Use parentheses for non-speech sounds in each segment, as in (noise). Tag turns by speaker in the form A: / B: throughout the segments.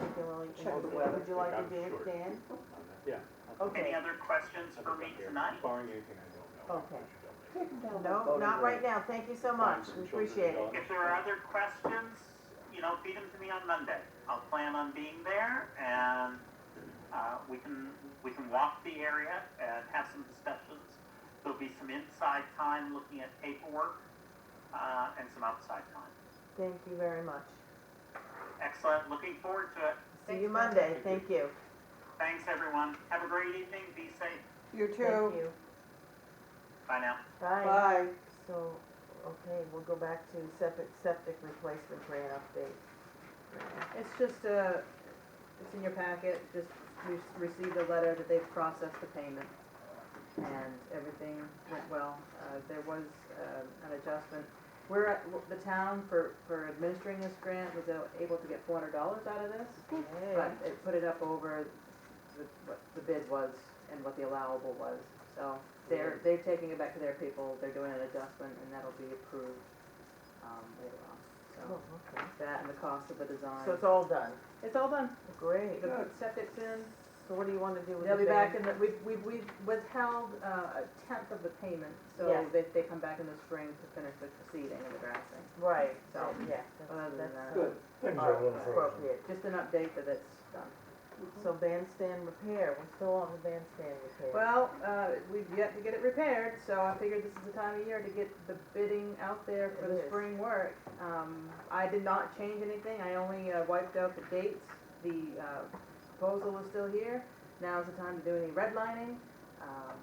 A: I'll
B: Check the
A: email
B: weather.
A: you. Would you like to
C: I'm
A: do it,
C: sure.
A: Dan?
C: Yeah.
A: Okay.
D: Any other questions for me tonight?
C: Barring anything I don't know. I'll
A: Okay.
C: put you down there.
B: Take them down.
A: No, not right now, thank you so much, we appreciate it.
D: If there are other questions, you know, feed them to me on Monday. I'll plan on being there and, uh, we can, we can walk the area and have some discussions. There'll be some inside time looking at paperwork, uh, and some outside time.
A: Thank you very much.
D: Excellent, looking forward to it.
A: See you Monday, thank you.
D: Thanks, everyone. Have a great evening, be safe.
B: You
A: Thank
B: too.
A: you.
D: Bye now.
A: Bye.
B: Bye.
A: So, okay, we'll go back to septic, septic replacement grant update.
E: It's just a, it's in your packet, just, we s- received a letter that they've processed the payment. And everything went well. Uh, there was, um an adjustment. We're, at- the town for, for administering this grant was able to get four hundred dollars out of this. But
A: Yay.
E: it put it up over the- what the bid was and what the allowable was. So they're, they're taking it back to their people, they're doing an adjustment, and that'll be approved, um, later on.
A: Oh,
E: So
A: okay.
E: that and the cost of the design.
A: So it's all done,
E: It's all done.
A: great.
E: The septic's in,
A: So what do you wanna do with the
E: they'll be back
A: van?
E: in the, we've, we've, we've withheld, uh, a tenth of the payment, so
A: Yeah.
E: they, they come back in the spring to finish the seeding and the grassing.
A: Right, so,
E: So,
A: yeah, that's,
E: other than
A: that's
E: that-
A: good.
F: Things
A: All
F: are
A: right,
F: a little frozen.
A: Appropriate.
E: Just an update that it's done.
A: So bandstand repair, we're still on the bandstand repair.
E: Well, uh, we've yet to get it repaired, so I figured this is the time of year to get the bidding out there for
A: It
E: the
A: is.
E: spring work. Um, I did not change anything, I only uh, wiped out the dates, the, uh, proposal is still here. Now's the time to do any redlining, um,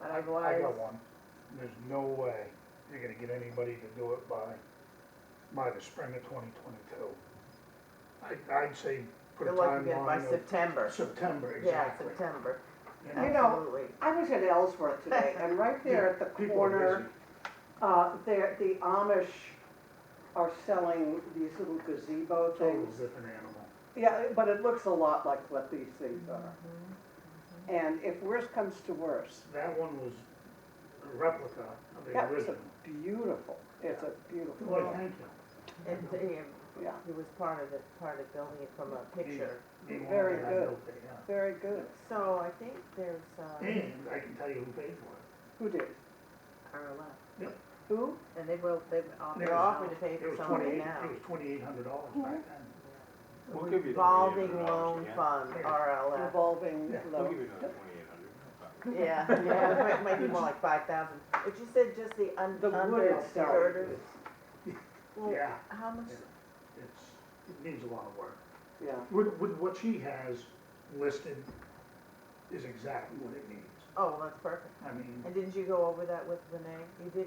E: but
F: I
E: otherwise.
F: I got one. There's no way you're gonna get anybody to do it by, by the spring of twenty twenty-two. I, I'd say put a
A: You'd like to get by
F: timeline
A: September.
F: of September,
A: Yeah,
F: exactly.
A: September,
F: You know,
B: You know,
A: absolutely.
B: I was at Ellsworth today, and right there at
F: (laughs)
B: the
F: people are
B: corner, uh, there, the Amish are selling these little gazebo
F: busy. Total
B: things.
F: different animal.
B: Yeah, but it looks a lot like what these things are. And if worse comes to worse,
F: That one was a replica of the
B: that was
F: original.
B: a beautiful, it's a beautiful,
F: Well, thank you.
A: And Dave,
B: yeah,
A: he was part of it, part of building it from a picture.
F: The one
B: Very
F: that I
B: good.
F: built there, yeah.
B: very good.
A: So I think there's, uh,
F: And I can tell you who paid for it.
B: Who did?
E: RLF.
B: Who?
E: And they will, they offer.
A: they're offering to pay
F: It
A: for
F: was
A: some of it
F: twenty-eight,
A: now.
F: it was twenty-eight hundred dollars back then.
C: We'll give you the
A: Revolving
C: $2,800
A: loan
C: again.
A: fund,
F: Yeah.
A: RLF.
B: Revolving
F: Yeah,
C: I'll give
B: loan.
C: you another twenty-eight hundred.
A: Yeah, (laughs) yeah, it might be
E: (laughs)
A: more like five thousand, but you said just the un-
B: The wood
A: under
B: itself.
A: girders? Well,
F: Yeah,
A: How much,
F: it's, it needs a lot of work.
B: Yeah,
F: With, with what she has listed is exactly what it needs.
A: oh, well, that's perfect.
F: I mean,
A: And didn't you go over that with Renee? You did,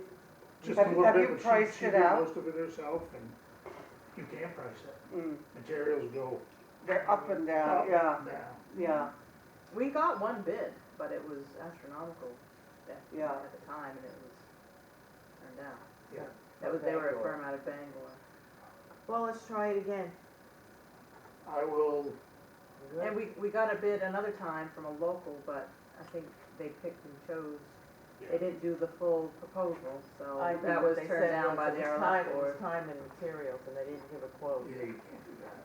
F: just a
B: Have-
F: little
B: have
F: bit,
B: you
F: but she,
B: priced
F: she
B: it
F: did
B: out?
F: most of it herself and you can't price it.
B: mm,
F: Materials go
B: they're up and
F: up
B: down,
F: and
B: yeah,
F: down.
B: yeah,
E: We got one bid, but it was astronomical at,
B: Yeah.
E: at the time, and it was turned down.
F: Yeah.
E: That was, they were a
A: Bangor.
E: firm out of Bangor.
A: well, let's try it again.
F: I will,
E: And we, we got a bid another time from a local, but I think they picked and chose, they didn't do the full proposal, so
A: I think
E: that
A: what
E: was
A: they
E: turned
A: said was
E: down by
A: it
E: the
A: was time-
E: RLF
A: It was
E: board.
A: time and materials, and they didn't give a quote.
F: yeah, you can't do that.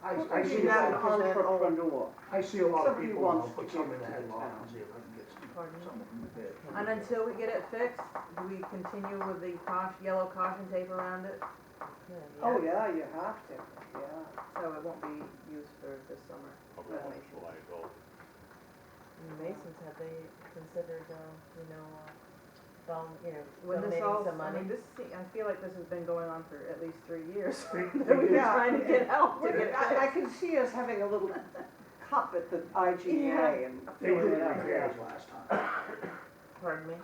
B: Put
F: I, I see, a
B: me down
F: lot-
B: on
A: that old-
B: entrepreneur.
F: I see a lot of
B: Somebody
F: people, and I'll
B: wants to
F: put some
B: give
F: in the
B: to the
F: headlock
B: town.
F: and see if I can get
A: Pardon?
F: some, some of them to bid.
E: And until we get it fixed, do we continue with the caution, yellow caution tape around it,
A: Yeah,
B: Oh,
A: yeah.
B: yeah, you have to, yeah.
E: so it won't be used for this summer.
C: Probably
E: That
C: won't
E: makes
C: fly at all.
A: And the Masons, have they considered, um, you know, uh, vol- you know,
E: When this
A: donating
E: all,
A: some
E: I
A: money?
E: mean, this, se- I feel like this has been going on for at least three years. (laughs)
F: They-
E: That
F: they
E: we've been
F: did-
B: Yeah.
E: trying to get help to get it
B: I, I
E: fixed.
B: can see us having a little cup at the IGA and.
F: They did
B: filling it up.
F: repairs last time.
A: Pardon me?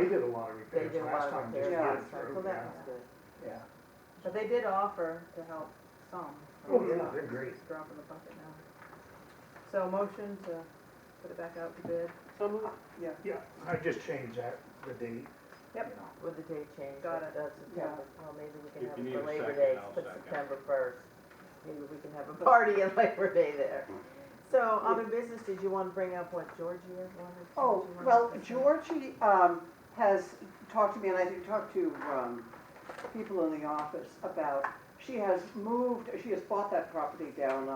F: They did a lot of
A: They
F: repairs
A: did a lot of
F: last time. just
A: repairs
F: to
B: Yeah.
A: last
F: get
A: time,
F: through,
A: so that
F: yeah.
A: was good.
F: Yeah.
E: But they did offer to help some.
F: Oh, yeah, they're great.
E: It's a drop in the bucket now. So a motion to put it back out to bid.
C: Some of
B: Yeah,
F: Yeah, I just changed that, the date.
E: Yep.
F: you know.
A: With the date change,
E: Got
A: that-
E: it.
A: that's September, well, maybe we can
C: If
A: have it
C: you need
A: for
C: a
A: Labor
C: second,
A: Day,
C: I'll
A: put
C: second.
A: September first. Maybe we can have a party at (laughs) Labor Day there. So other business, did you want to bring up what Georgia wanted?
B: oh,
A: did you wanna
B: well,
A: discuss?
B: Georgie, um, has talked to me, and I think talked to, um, people in the office about, she has moved, she has bought that property down on